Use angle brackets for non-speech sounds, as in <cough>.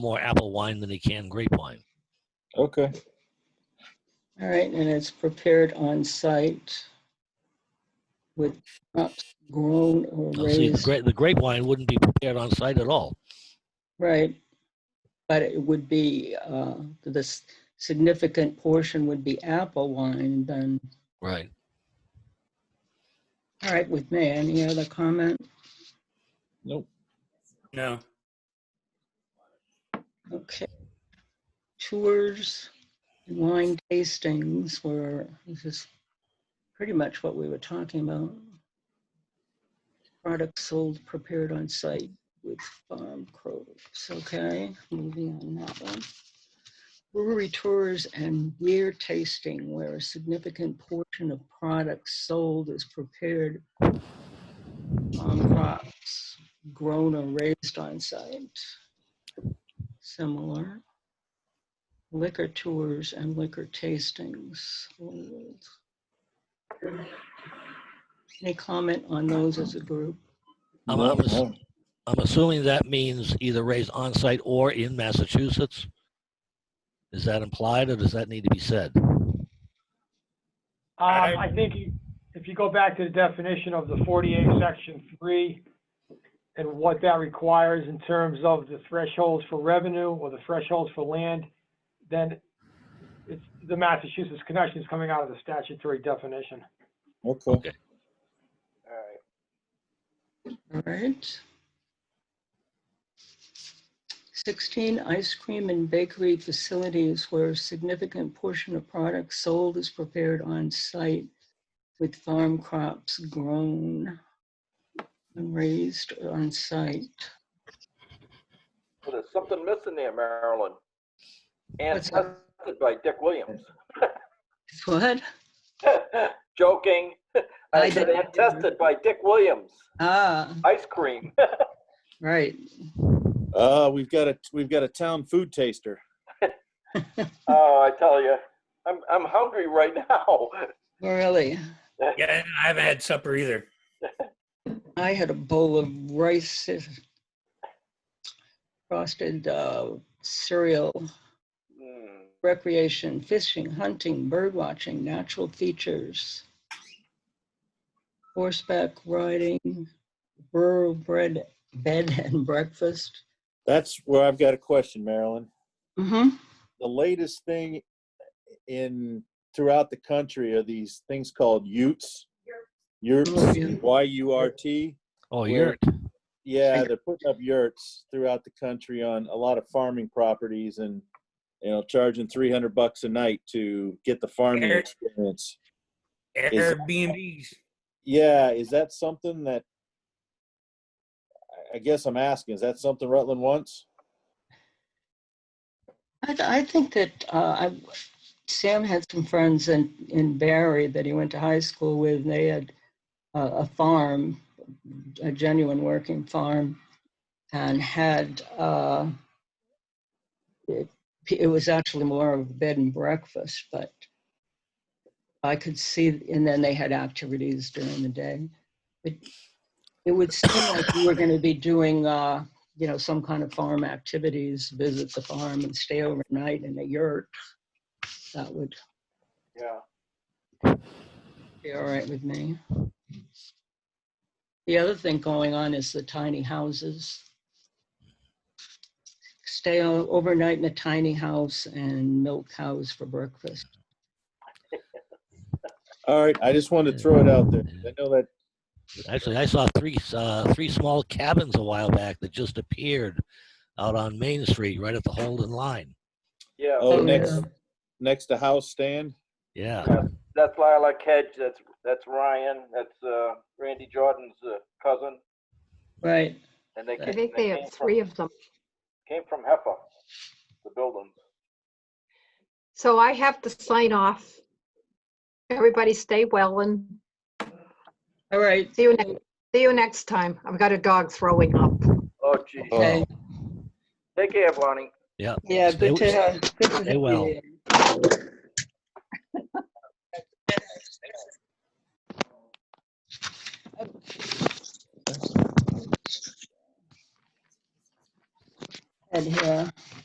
more apple wine than he can grape wine. Okay. All right, and it's prepared on site with crops grown or Now, see, the raised, grape, the grape wine wouldn't be prepared on site at all. right? But it would be, uh, this significant portion would be apple wine then. Right. All right, with me, any other comment? Nope. No. Okay. Tours, and wine tastings were, this is pretty much what we were talking about. Products sold prepared on site with farm crops, okay, moving on that one. Brewery tours and beer tasting where a significant portion of products sold is prepared on crops grown or raised on site similar. Liquor tours and liquor tastings. old. Any comment on those as a group? I'm, No, I'm ass- no. I'm assuming that means either raised on site or in Massachusetts. Is that implied or does that need to be said? Um, I think you, if you go back to the definition of the forty-eight, section three, and what that requires in terms of the thresholds for revenue or the thresholds for land, then it's, the Massachusetts connection is coming out of the statutory definition. Okay. All right. 16, ice cream and bakery facilities where a significant portion of products sold is prepared on site with farm crops grown and raised on site. Well, There's something missing there, Marilyn. And What's that? tested by Dick Williams. <laughs> What? Joking. I I said, didn't- and tested by Dick Williams. Ah, Ice cream. <laughs> right. Uh, we've got a, we've got a town food taster. Oh, I tell you, I'm, I'm hungry right <laughs> now. Really? Yeah, I haven't had supper either. I had a bowl of rice, and frosted uh, cereal, Mm. recreation, fishing, hunting, bird watching, natural features, horseback riding, rural bread, bed and breakfast. That's where I've got a question, Marilyn. Mm-hmm. The latest thing in, throughout the country are these things called yurts. Yurts, Yeah. Y-U-R-T. Oh, Where- you're Yeah, Like- they're putting up yurts throughout the country on a lot of farming properties and, you know, charging three hundred bucks a night to get the farming Eric. experience. Airbnbs. Yeah, is that something that, I- I guess I'm asking, is that something Rutland wants? I, th- I think that uh, I, Sam had some friends in, in Barry that he went to high school with. They had a, a farm, a genuine working farm, and had uh, it, it was actually more of a bed and breakfast, but I could see, and then they had activities during the day. It, it would seem like we were going to be doing. Uh, you know, some kind of farm activities, visit the farm and stay overnight in a yurt. That would Yeah. be all right with me. The other thing going on is the tiny houses. Stay o- overnight in a tiny house and milk cows for breakfast. All right, I just wanted to throw it out there. I know that, Actually, I saw three uh, three small cabins a while back that just appeared out on Main Street, right at the Holden line. Yeah. oh, Oh, next, yeah. next to house stand? Yeah, That's Lila Kedge. That's, that's Ryan. That's, uh, Randy Jordan's uh, cousin. Right. And they. I ca- think they came have from- three of them. Came from Heffa, the building. So I have to sign off. Everybody stay well and All right. see you, ne- see you next time. I've got a dog throwing up. Oh, geez. Okay. Take care, Bonnie. yeah. Yeah, uh, Stay- good to have. good to have you well. here. <laughs> And here,